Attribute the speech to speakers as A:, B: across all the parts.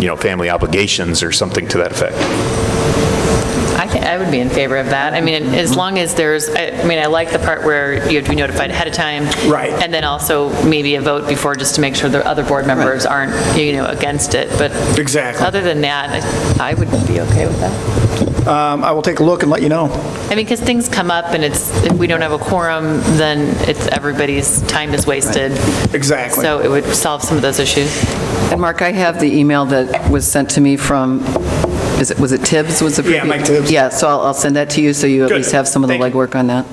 A: you know, family obligations or something to that effect.
B: I can, I would be in favor of that. I mean, as long as there's, I I mean, I like the part where you have to be notified ahead of time.
C: Right.
B: And then also maybe a vote before, just to make sure the other board members aren't, you know, against it, but.
C: Exactly.
B: Other than that, I I would be okay with that.
C: Um, I will take a look and let you know.
B: I mean, because things come up and it's, if we don't have a quorum, then it's, everybody's time is wasted.
C: Exactly.
B: So it would solve some of those issues.
D: And Mark, I have the email that was sent to me from, is it, was it Tibbs was the?
C: Yeah, Mike Tibbs.
D: Yeah, so I'll, I'll send that to you, so you at
C: Good.
D: least have some of the
C: Thank you.
D: legwork on that.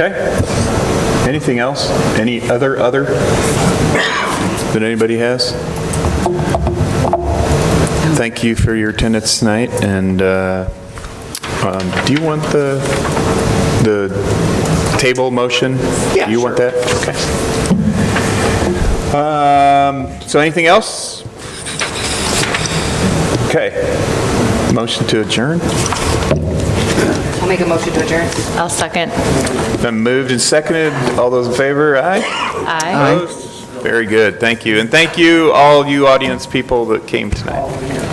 E: Okay. Anything else? Any other, other that anybody has? Thank you for your attendance tonight, and uh, um, do you want the, the table motion?
C: Yeah,
E: You want
C: sure.
E: that? Okay. Um, So anything else? Okay. Motion to adjourn?
F: I'll make a motion to adjourn.
B: I'll second.
E: Been moved and seconded. All those in favor, aye?
B: Aye.
E: Very good, thank you. And thank you, all you audience people that came tonight.